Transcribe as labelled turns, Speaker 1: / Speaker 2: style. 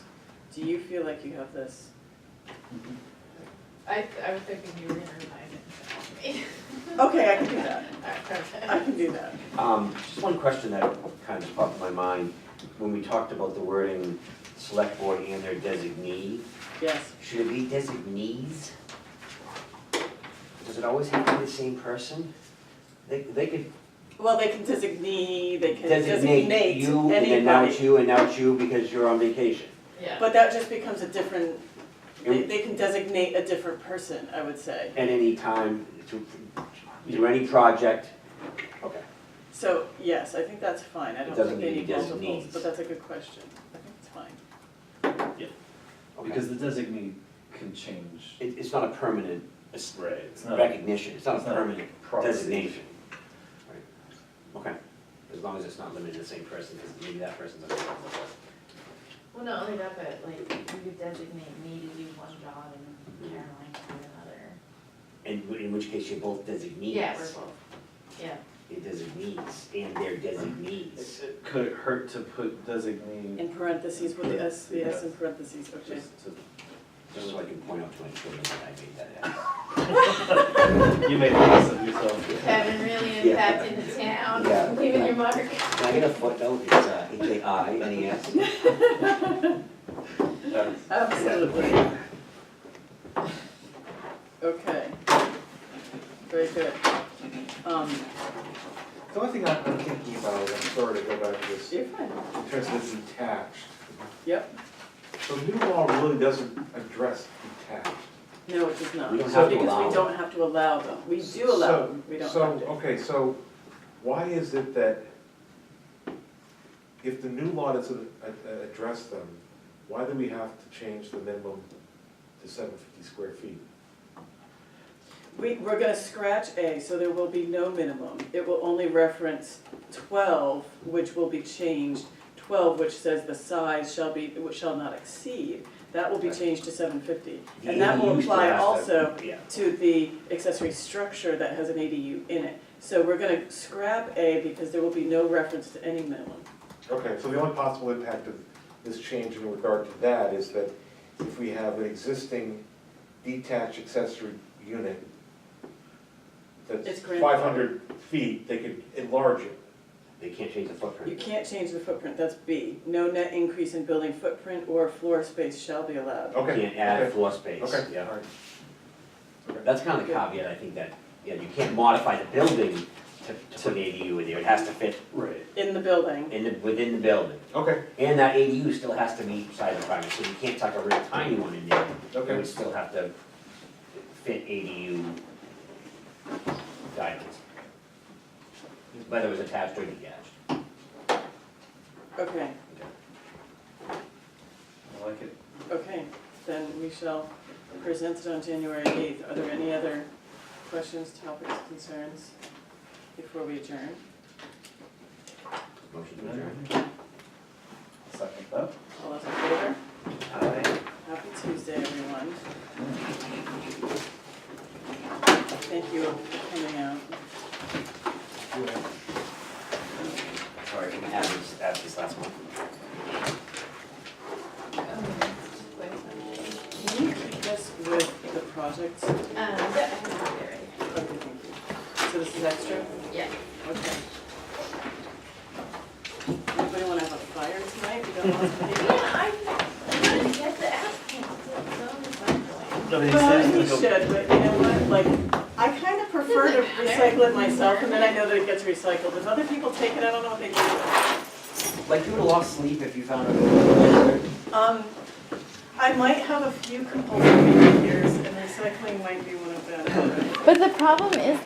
Speaker 1: do you feel like you have this?
Speaker 2: I, I was thinking you were gonna remind me.
Speaker 1: Okay, I can do that, I
Speaker 2: Okay.
Speaker 1: can do that.
Speaker 3: Um, just one question that kind of popped in my mind, when we talked about the wording, select board and their designee,
Speaker 1: Yes,
Speaker 3: should it be designees? Does it always have to be the same person? They, they could
Speaker 1: well, they can designate, they can
Speaker 3: designate
Speaker 1: designate
Speaker 3: you, and then now it's
Speaker 1: anybody,
Speaker 3: you, and now it's you because you're on vacation.
Speaker 2: Yeah,
Speaker 1: but that just becomes a different, they,
Speaker 3: And-
Speaker 1: they can designate a different person, I would say.
Speaker 3: At any time, to, do any project, okay.
Speaker 1: So, yes, I think that's fine, I
Speaker 3: It
Speaker 1: don't
Speaker 3: doesn't
Speaker 1: think they
Speaker 3: need
Speaker 1: need
Speaker 3: to be
Speaker 1: multiples,
Speaker 3: designees.
Speaker 1: but that's a good question, I think it's fine.
Speaker 3: okay.
Speaker 4: Because the designee can change.
Speaker 3: It, it's not a permanent es-
Speaker 4: Right. It's not, it's
Speaker 3: recognition, it's not a
Speaker 4: not
Speaker 3: permanent
Speaker 4: property.
Speaker 3: designation. Right. Okay, as long as it's not limited to the same person, because maybe that person's on the wrong list.
Speaker 2: well, not only that, but like, you could designate me to do one job and Caroline to do another.
Speaker 3: And w- in which case you're both designees.
Speaker 2: Yeah, we're both, yeah,
Speaker 3: You're designees, and they're designees.
Speaker 4: It Could it hurt to put designee
Speaker 1: In parentheses with the S, the S in parentheses, okay.
Speaker 4: just to,
Speaker 3: Just so I can point out to my children that I made that up.
Speaker 4: you made less of yourself.
Speaker 2: Kevin really impacted the town,
Speaker 3: Yeah.
Speaker 2: leaving your mark. Um,
Speaker 3: Can I get a footnote, it's uh, H A I N E S?
Speaker 4: That's-
Speaker 1: Absolutely. Okay. Very good. Um,
Speaker 5: The only thing I'm I'm thinking about, I'm sorry to go back to this,
Speaker 1: you're fine.
Speaker 5: in terms of detached,
Speaker 1: Yep.
Speaker 5: the new law really doesn't address detached.
Speaker 1: No, it does not.
Speaker 3: We don't
Speaker 5: have to
Speaker 3: allow
Speaker 1: Because we
Speaker 3: them.
Speaker 1: don't have to allow them. We do allow them, we don't
Speaker 5: So,
Speaker 1: have
Speaker 5: so,
Speaker 1: to.
Speaker 5: okay, so why is it that if the new law doesn't a- a- address them, why do we have to change the minimum to seven fifty square feet?
Speaker 1: We, we're gonna scratch A, so there will be no minimum. It will only reference twelve, which will be changed, twelve, which says the size shall be, shall not exceed. That will be
Speaker 3: Right.
Speaker 1: changed to seven fifty.
Speaker 3: The
Speaker 1: And that will
Speaker 3: ADUs
Speaker 1: apply
Speaker 3: don't have to-
Speaker 1: also
Speaker 3: Yeah.
Speaker 1: to the accessory structure that has an ADU in it. So we're gonna scrap A because there will be no reference to any minimum.
Speaker 5: Okay, so the only possible impact of this change in regard to that is that if we have an existing detached accessory unit
Speaker 1: It's
Speaker 5: that's
Speaker 1: grandfathered.
Speaker 5: five hundred feet, they could enlarge it.
Speaker 3: They can't change the
Speaker 1: You
Speaker 3: footprint.
Speaker 1: can't change the footprint, that's B. No net increase in building footprint or floor space shall be allowed.
Speaker 5: Okay.
Speaker 3: Can't add
Speaker 5: okay,
Speaker 3: floor space,
Speaker 5: Okay.
Speaker 3: yeah.
Speaker 5: all right. Okay.
Speaker 3: That's kind of the caveat, I think, that, yeah, you can't modify the building to, to put an ADU in there, it has to fit
Speaker 4: Right.
Speaker 1: In the building,
Speaker 3: in the, within the building.
Speaker 5: Okay,
Speaker 3: And that ADU still has to meet side requirements, so you can't tuck a real tiny one in there, it
Speaker 5: okay,
Speaker 3: would still have to fit ADU guidelines. Whether it was attached or detached.
Speaker 1: okay,
Speaker 4: I like it.
Speaker 1: okay, then we shall present it on January eighth. Are there any other questions, topics, concerns before we adjourn?
Speaker 3: Motion to adjourn.
Speaker 4: Second that.
Speaker 1: All those in favor?
Speaker 3: Aye.
Speaker 1: Happy Tuesday, everyone. Thank you for coming out.
Speaker 3: Sorry, we had this, had this last month.
Speaker 1: Can you keep this with the projects? Okay,
Speaker 2: Um, yeah, I can do it right.
Speaker 1: thank you. So this is extra?
Speaker 2: Yeah.
Speaker 1: Okay. Anybody wanna have a fire tonight? We don't want to be.
Speaker 2: Yeah, I'm gonna get the applicant, so I'm going.
Speaker 4: No, they said
Speaker 1: Well, you
Speaker 4: it's gonna
Speaker 1: should, but you know what, like, I kind of prefer to
Speaker 2: Doesn't matter.
Speaker 1: recycle it myself, and then I know that it gets recycled. If other people take it, I don't know what they do with it.
Speaker 3: Like, you would've lost sleep if you found out.
Speaker 1: Um, I might have a few compulsive behaviors, and recycling might be one of them.
Speaker 6: But the problem is